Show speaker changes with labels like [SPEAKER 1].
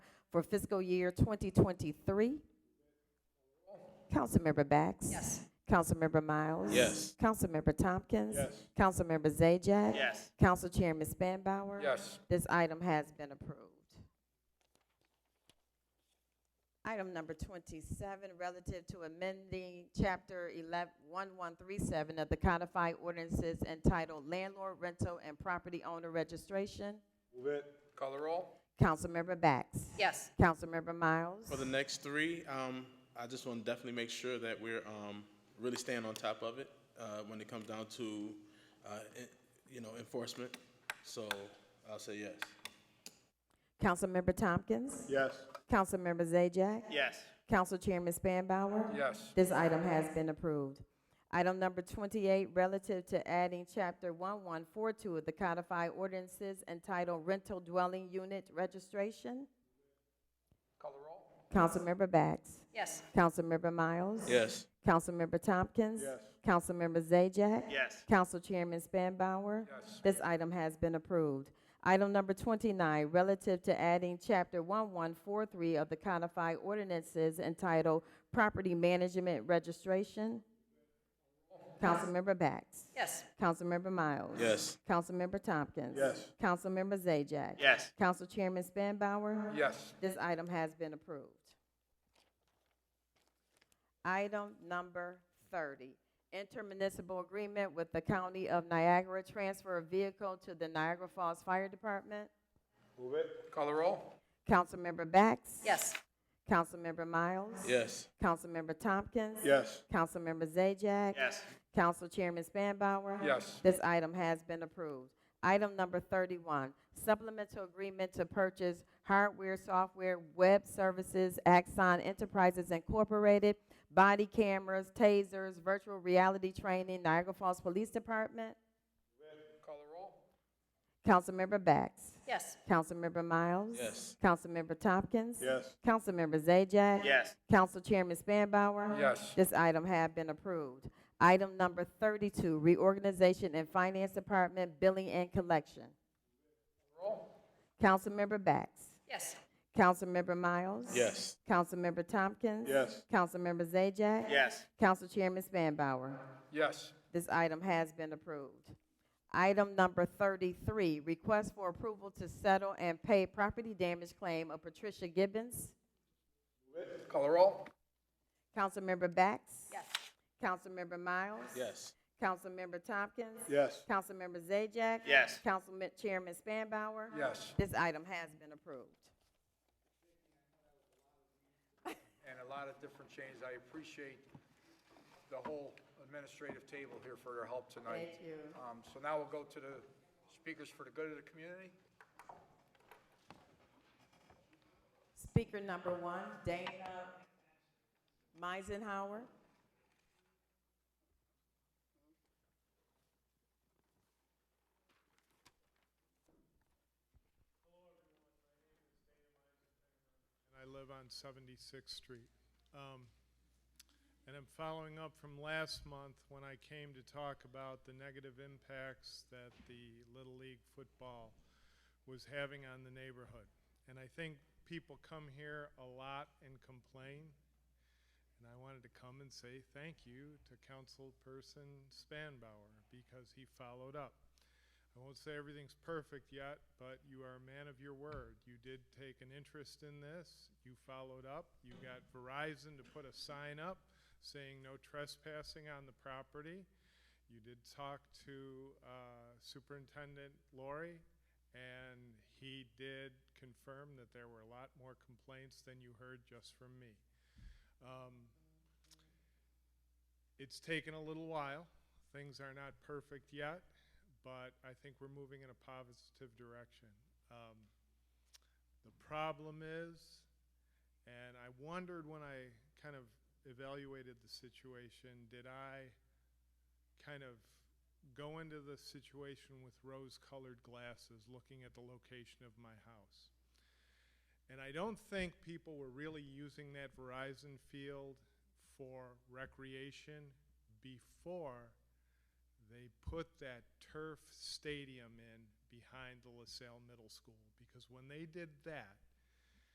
[SPEAKER 1] for fiscal year 2023. Councilmember Bax?
[SPEAKER 2] Yes.
[SPEAKER 1] Councilmember Miles?
[SPEAKER 3] Yes.
[SPEAKER 1] Councilmember Tompkins?
[SPEAKER 3] Yes.
[SPEAKER 1] Councilmember Zajac,
[SPEAKER 3] Yes.
[SPEAKER 1] Council Chairman Spanbauer?
[SPEAKER 3] Yes.
[SPEAKER 1] This item has been approved. Item number twenty-seven, relative to amending chapter eleven, one-one-three-seven of the codified ordinances entitled landlord, rental, and property owner registration.
[SPEAKER 3] Move it. Call the roll.
[SPEAKER 1] Councilmember Bax?
[SPEAKER 2] Yes.
[SPEAKER 1] Councilmember Miles?
[SPEAKER 3] For the next three, um, I just want to definitely make sure that we're, um, really staying on top of it, uh, when it comes down to, uh, en- you know, enforcement. So I'll say yes.
[SPEAKER 1] Councilmember Tompkins?
[SPEAKER 3] Yes.
[SPEAKER 1] Councilmember Zajac,
[SPEAKER 3] Yes.
[SPEAKER 1] Council Chairman Spanbauer?
[SPEAKER 3] Yes.
[SPEAKER 1] This item has been approved. Item number twenty-eight, relative to adding chapter one-one-four-two of the codified ordinances entitled rental dwelling unit registration. Call the roll. Councilmember Bax.
[SPEAKER 2] Yes.
[SPEAKER 1] Councilmember Miles.
[SPEAKER 3] Yes.
[SPEAKER 1] Councilmember Tompkins.
[SPEAKER 3] Yes.
[SPEAKER 1] Councilmember Zajac.
[SPEAKER 3] Yes.
[SPEAKER 1] Council Chairman Spanbauer.
[SPEAKER 3] Yes.
[SPEAKER 1] This item has been approved. Item number twenty-nine, relative to adding chapter one-one-four-three of the codified ordinances entitled Property Management Registration. Councilmember Bax.
[SPEAKER 2] Yes.
[SPEAKER 1] Councilmember Miles.
[SPEAKER 3] Yes.
[SPEAKER 1] Councilmember Tompkins.
[SPEAKER 3] Yes.
[SPEAKER 1] Councilmember Zajac.
[SPEAKER 3] Yes.
[SPEAKER 1] Council Chairman Spanbauer.
[SPEAKER 3] Yes.
[SPEAKER 1] This item has been approved. Item number thirty, intermunicipal agreement with the County of Niagara, transfer of vehicle to the Niagara Falls Fire Department.
[SPEAKER 3] Move it. Call the roll.
[SPEAKER 1] Councilmember Bax?
[SPEAKER 2] Yes.
[SPEAKER 1] Councilmember Miles?
[SPEAKER 3] Yes.
[SPEAKER 1] Councilmember Tompkins?
[SPEAKER 3] Yes.
[SPEAKER 1] Councilmember Zajac?
[SPEAKER 3] Yes.
[SPEAKER 1] Council Chairman Spanbauer?
[SPEAKER 3] Yes.
[SPEAKER 1] This item has been approved. Item number thirty-one, supplemental agreement to purchase hardware, software, web services, Axon Enterprises Incorporated, body cameras, tasers, virtual reality training, Niagara Falls Police Department.
[SPEAKER 3] Call the roll.
[SPEAKER 1] Councilmember Bax?
[SPEAKER 2] Yes.
[SPEAKER 1] Councilmember Miles?
[SPEAKER 3] Yes.
[SPEAKER 1] Councilmember Tompkins?
[SPEAKER 3] Yes.
[SPEAKER 1] Councilmember Zajac?
[SPEAKER 3] Yes.
[SPEAKER 1] Council Chairman Spanbauer?
[SPEAKER 3] Yes.
[SPEAKER 1] This item have been approved. Item number thirty-two, reorganization and finance department, billing and collection. Councilmember Bax?
[SPEAKER 2] Yes.
[SPEAKER 1] Councilmember Miles?
[SPEAKER 3] Yes.
[SPEAKER 1] Councilmember Tompkins?
[SPEAKER 3] Yes.
[SPEAKER 1] Councilmember Zajac?
[SPEAKER 3] Yes.
[SPEAKER 1] Council Chairman Spanbauer?
[SPEAKER 3] Yes.
[SPEAKER 1] This item has been approved. Item number thirty-three, request for approval to settle and pay property damage claim of Patricia Gibbons.
[SPEAKER 3] Call the roll.
[SPEAKER 1] Councilmember Bax?
[SPEAKER 2] Yes.
[SPEAKER 1] Councilmember Miles?
[SPEAKER 3] Yes.
[SPEAKER 1] Councilmember Tompkins?
[SPEAKER 3] Yes.
[SPEAKER 1] Councilmember Zajac?
[SPEAKER 3] Yes.
[SPEAKER 1] Councilman Chairman Spanbauer?
[SPEAKER 3] Yes.
[SPEAKER 1] This item has been approved.
[SPEAKER 4] and a lot of different changes. I appreciate the whole administrative table here for their help tonight.
[SPEAKER 1] Thank you.
[SPEAKER 4] Um, So now we'll go to the speakers for the good of the community.
[SPEAKER 1] Speaker number one, Dana Meisenhower.
[SPEAKER 5] and I live on 76th Street. Um, And I'm following up from last month when I came to talk about the negative impacts that the Little League football was having on the neighborhood. And I think people come here a lot and complain, and I wanted to come and say thank you to Councilperson Spanbauer because he followed up. I won't say everything's perfect yet, but you are a man of your word. You did take an interest in this. You followed up. You got Verizon to put a sign up saying no trespassing on the property. You did talk to uh, Superintendent Lori, and he did confirm that there were a lot more complaints than you heard just from me. Um, it's taken a little while. Things are not perfect yet, but I think we're moving in a positive direction. Um, the problem is, and I wondered when I kind of evaluated the situation, did I kind of go into the situation with rose colored glasses looking at the location of my house? And I don't think people were really using that Verizon field for recreation before they put that turf stadium in behind the LaSalle Middle School. Because when they did that,